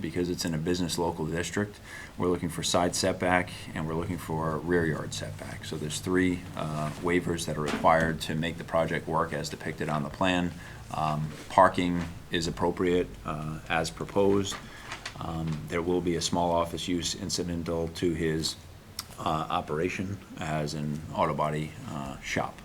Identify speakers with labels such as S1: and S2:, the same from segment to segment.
S1: because it's in a business local district. We're looking for side setback and we're looking for rear yard setback. So there's three uh, waivers that are required to make the project work as depicted on the plan. Um, Parking is appropriate uh, as proposed. Um, There will be a small office use incidental to his uh, operation as an auto body uh, shop.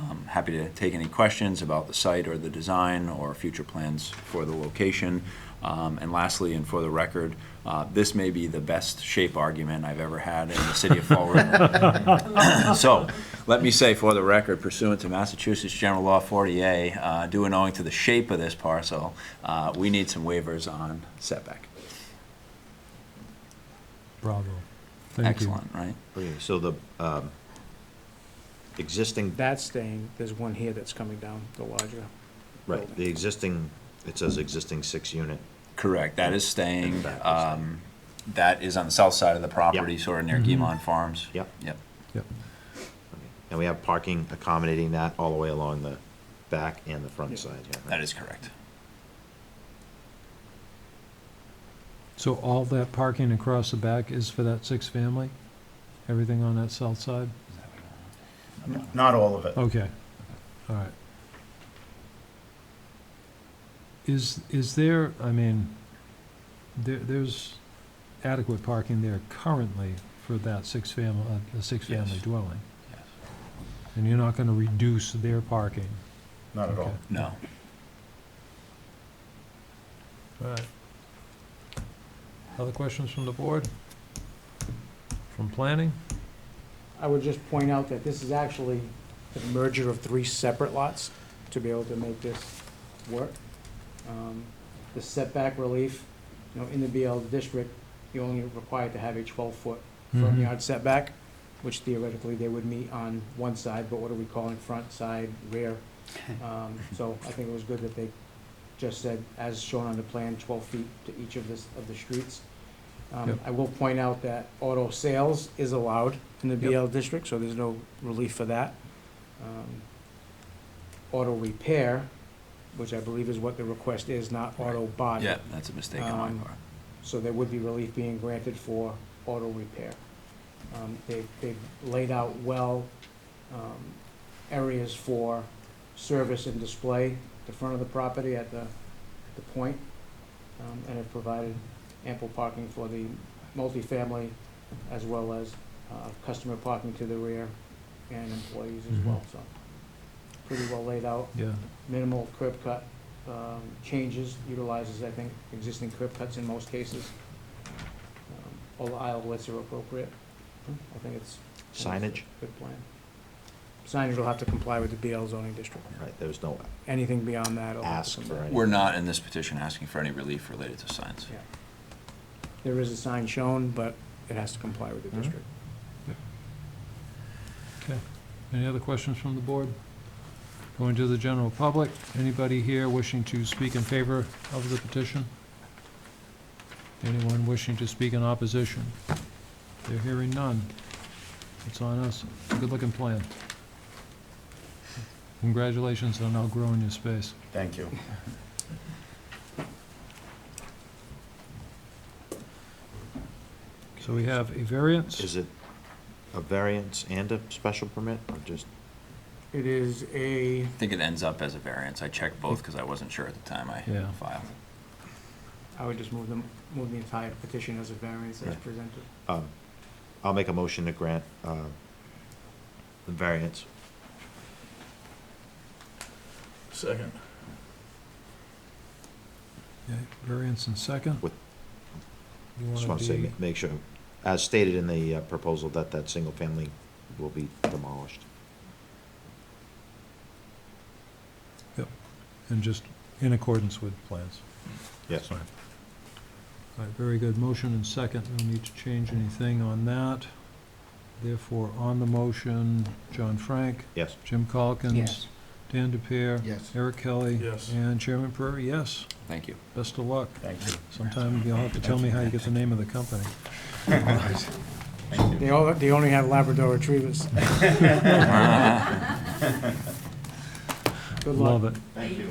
S1: Um, Happy to take any questions about the site or the design or future plans for the location. Um, And lastly, and for the record, uh, this may be the best shape argument I've ever had in the city of Fall River. So, let me say for the record pursuant to Massachusetts General Law 40A, uh, due and owing to the shape of this parcel, uh, we need some waivers on setback.
S2: Bravo. Thank you.
S1: Excellent, right?
S3: Okay, so the um, existing,
S4: That's staying, there's one here that's coming down, the larger.
S3: right, the existing, it says existing six-unit.
S1: Correct, that is staying.
S3: And that is
S1: um, That is on the south side of the property, sort of near
S2: Mhm.
S1: Guimond Farms.
S3: Yep.
S1: Yep,
S2: Yep.
S3: okay. And we have parking accommodating that all the way along the back and the
S4: Yeah.
S3: front side. yeah, right?
S1: that is correct.
S2: So all that parking across the back is for that six family? Everything on that south side?
S5: Not all of it.
S2: Okay, all right. Is, is there, I mean, there, there's adequate parking there currently for that six family, a six-family
S1: Yes.
S2: dwelling? And you're not gonna reduce their parking?
S5: Not at all.
S2: Okay.
S1: No.
S2: All right. Other questions from the board? From planning?
S4: I would just point out that this is actually the merger of three separate lots to be able to make this work. Um, The setback relief, you know, in the BL district, you're only required to have a twelve-foot front
S2: Mhm.
S4: yard setback, which theoretically they would meet on one side, but what are we calling front, side, rear? Um, So I think it was good that they just said, as shown on the plan, twelve feet to each of this, of the streets. Um,
S2: Yep.
S4: I will point out that auto sales is allowed in the
S2: Yep.
S4: BL district, so there's no relief for that. Um, Auto repair, which I believe is what the request is, not auto body.
S1: Yeah, that's a mistake on
S4: Um,
S1: my part.
S4: So there would be relief being granted for auto repair. Um, They've, they've laid out well um, areas for service and display, the front of the property at the, the point, um, and have provided ample parking for the multifamily as well as uh, customer parking to the rear and employees as well, so. Pretty well laid out
S2: Yeah.
S4: minimal curb cut um, changes, utilizes, I think, existing curb cuts in most cases. Um, All the aislewidths are appropriate. I think it's. I think it's
S3: Signage,
S4: a Good plan. Signage will have to comply with the BL zoning district.
S3: right, there was no,
S4: Anything beyond that. will have to
S3: Ask
S4: come
S3: for
S4: back.
S3: any-
S1: We're not in this petition asking for any relief related to signs.
S4: Yeah. There is a sign shown, but it has to comply with the
S3: Mhm.
S4: district.
S2: Any other questions from the board? Going to the general public, anybody here wishing to speak in favor of the petition? Anyone wishing to speak in opposition? They're hearing none. It's on us. Good-looking plan. Congratulations on outgrowing your space.
S5: Thank you.
S2: So we have a variance,
S3: is it a variance and a special permit, or just,
S4: It is a,
S1: I think it ends up as a variance. I checked both because I wasn't sure at the time I
S2: Yeah.
S1: filed.
S4: I would just move them, move the entire petition as a variance as
S3: Yeah.
S4: presented.
S3: um, I'll make a motion to grant uh, the variance.
S5: Second.
S2: Yeah, variance in second.
S3: With-
S2: You wanna
S3: Just want to say,
S2: be-
S3: ma- make sure, as stated in the uh, proposal, that that single family will be demolished.
S2: And just in accordance with plans.
S3: Yes.
S2: All right, very good. Motion and second. No need to change anything on that. Therefore, on the motion, John Frank,
S3: Yes.
S2: Jim Calkins.
S4: Yes.
S2: Dan DePere.
S5: Yes.
S2: Eric Kelly.
S5: Yes.
S2: And Chairman Prairie, yes.
S1: Thank you.
S2: Best of luck.
S5: Thank you.
S2: Sometime you'll have to tell me how you get the name of the company.
S4: They all, they only have Labrador retrievers. Good luck.
S2: Love it. Thank you.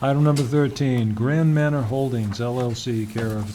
S2: Item number 13, Grand Manor Holdings LLC, care of